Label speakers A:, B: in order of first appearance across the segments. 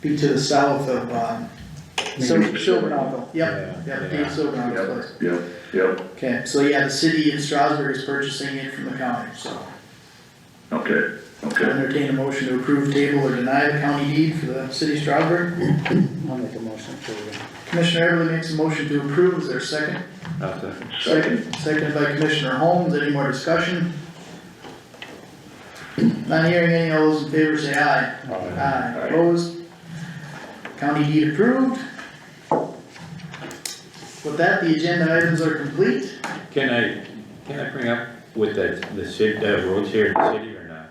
A: be to the south of, um, Sil- Silvernagle, yep,
B: Yeah,
A: yep,
B: yeah.
A: Dave Silvernagle's place.
C: Yep, yep,
A: Okay, so yeah, the city of Strasburg is purchasing it from the county, so
C: okay, okay.
A: entertain a motion to approve table or deny the county deed for the city of Strasburg.
D: I'll make a motion to uh,
A: Commissioner Everly makes a motion to approve, is there a second?
B: I'll second.
C: Second,
A: Seconded by Commissioner Holmes, any more discussion? Not hearing any, all those in favor say aye. Aye, opposed? County deed approved. With that, the agenda items are complete.
B: Can I, can I bring up with the, the city, the roads here in the city or not?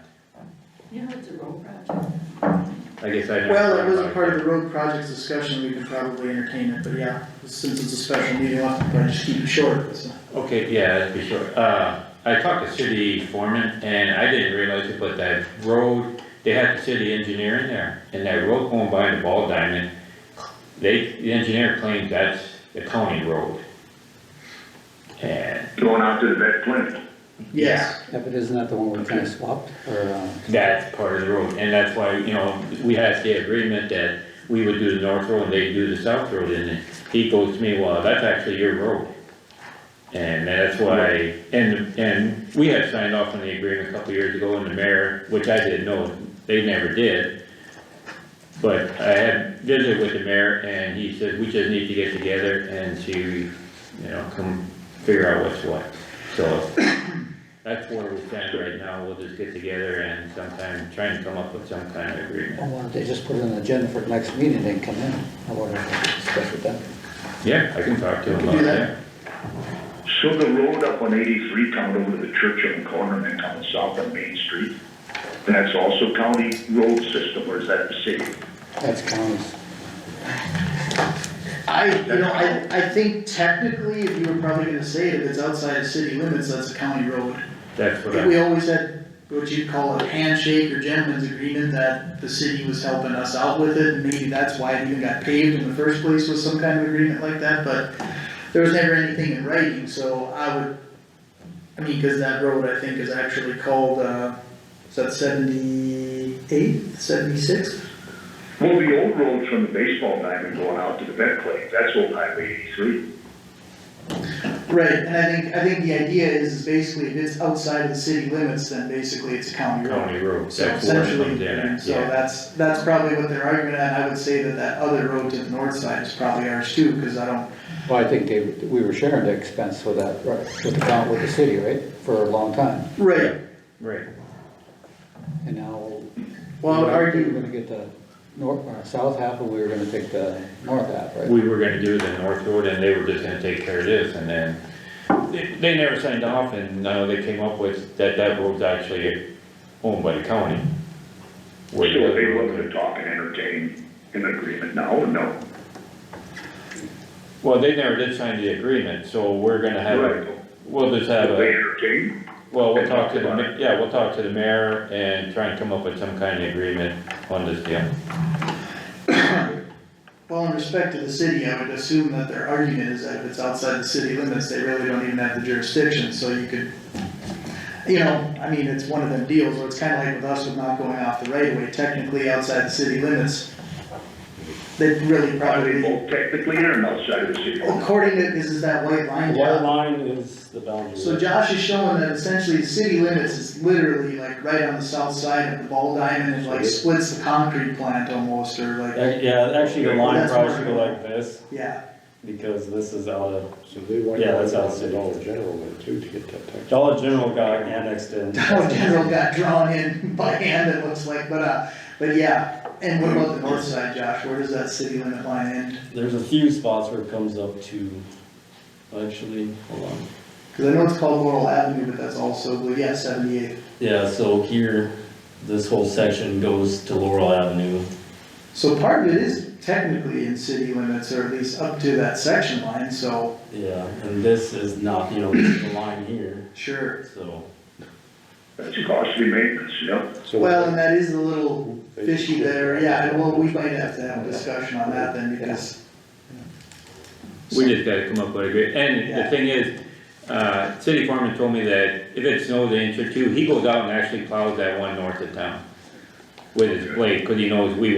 E: Yeah, it's a road project.
B: I guess I never.
A: Well, it
B: thought
A: wasn't
B: about
A: part of the road projects discussion, we could probably entertain it, but yeah, since it's a special meeting, I'll probably just keep it short, so.
B: Okay, yeah, that'd be sure. Uh, I talked to city foreman and I didn't realize it, but that road, they had the city engineer in there. And that road going by the ball diamond, they, the engineer claims that's the county road. And
C: going out to the vet clinic.
A: Yes,
D: yeah, but isn't that the one we kind of swapped, or, um,
B: that's part of the road, and that's why, you know, we had the agreement that we would do the north road and they'd do the south road, and he goes to me, well, that's actually your road. And that's why, and, and we had signed off on the agreement a couple years ago, and the mayor, which I didn't know, they never did. But I had visited with the mayor, and he said, we just need to get together and see, you know, come figure out what's what, so. That's where we stand right now, we'll just get together and sometime, try and come up with some kind of
D: or
B: agreement.
D: why don't Oh, they just put it on the agenda for the next meeting, they can come in, I wonder if they discuss with them.
B: Yeah, I can talk to him
A: can
B: about
A: do
B: that.
C: So the road up on eighty-three coming over to the church on the corner and then coming south on Main Street, that's also county road system, or is that the city?
D: That's counties,
A: I, you know, I, I think technically, if you were probably gonna say it, if it's outside of city limits, that's a county road.
B: That's
A: I
B: what
A: think we
B: I,
A: always had what you'd call a handshake or gentleman's agreement that the city was helping us out with it, and maybe that's why it even got paved in the first place was some kind of agreement like that, but there was never anything in writing, so I would, I mean, cause that road, I think, is actually called, uh, is that seventy-eight, seventy-six?
C: Well, the old road from the baseball diamond going out to the vet clinic, that's old highway eighty-three.
A: Right, and I think, I think the idea is, is basically if it's outside of the city limits, then basically it's a county road.
B: county road,
A: So
B: that's where it
A: essentially,
B: comes in,
A: so
B: yeah.
A: that's, that's probably what they're arguing, and I would say that that other road to the north side is probably ours too, cause I don't,
D: well, I think they, we were sharing the expense with that, right, with the count with the city, right, for a long time,
A: right,
B: Right,
D: and now.
A: well, I would
D: We were
A: argue,
D: gonna get the north, or south half, and we were gonna take the north half, right?
B: we were gonna do the north road and they were just gonna take care of this, and then they, they never signed off, and now they came up with that that road's actually owned by the county.
C: So
B: Where the
C: are
B: other
C: they
B: road
C: looking to talk and entertain an agreement now, or no?
B: Well, they never did sign the agreement, so we're gonna have,
C: Right.
B: a- we'll just have
C: Will
B: a.
C: they entertain?
B: Well, we'll talk to the, ma- yeah, we'll talk to the mayor and try and come up with some kind of agreement on this deal.
A: well, in respect to the city, I would assume that their argument is that if it's outside the city limits, they really don't even have the jurisdiction, so you could, you know, I mean, it's one of them deals, where it's kinda like with us with not going off the right of way, technically outside the city limits, they really
C: Are
A: probably.
C: they both technically in or outside of the city?
B: Oh.
A: According to, this is that white line.
F: The white line is the boundary.
A: So Josh is showing that essentially the city limits is literally like right on the south side of the ball diamond and like splits the concrete plant almost or like,
F: Ac- Yeah, actually, the line
A: That's
F: probably
A: where-
F: should go like this,
A: yeah.
F: because this is out of,
G: So they want
F: Yeah,
G: to
F: that's
G: out
F: awesome.
G: the Dollar General then too to get that tax.
F: Dollar General got annexed in.
A: Dollar General got drawn in by hand it looks like, but uh, but yeah. And what about the north side, Josh? Where does that city limit line end?
F: There's a few spots where it comes up to, actually, hold on.
A: Cause I know it's called Laurel Avenue, but that's also, well, yeah, seventy-eight.
F: Yeah, so here, this whole section goes to Laurel Avenue.
A: So part of it is technically in city limits or at least up to that section line, so
F: Yeah, and this is not, you know, this is the line here,
A: sure.
F: so.
C: That's costly maintenance, yep.
G: So-
A: Well, and that is a little fishy there, yeah, and well, we might have to have a discussion on that then, because.
B: We just gotta come up with a great, and
A: Yeah.
B: the thing is, uh, city foreman told me that if it snows an inch or two, he goes out and actually plows that one north of town with his blade, cause he knows we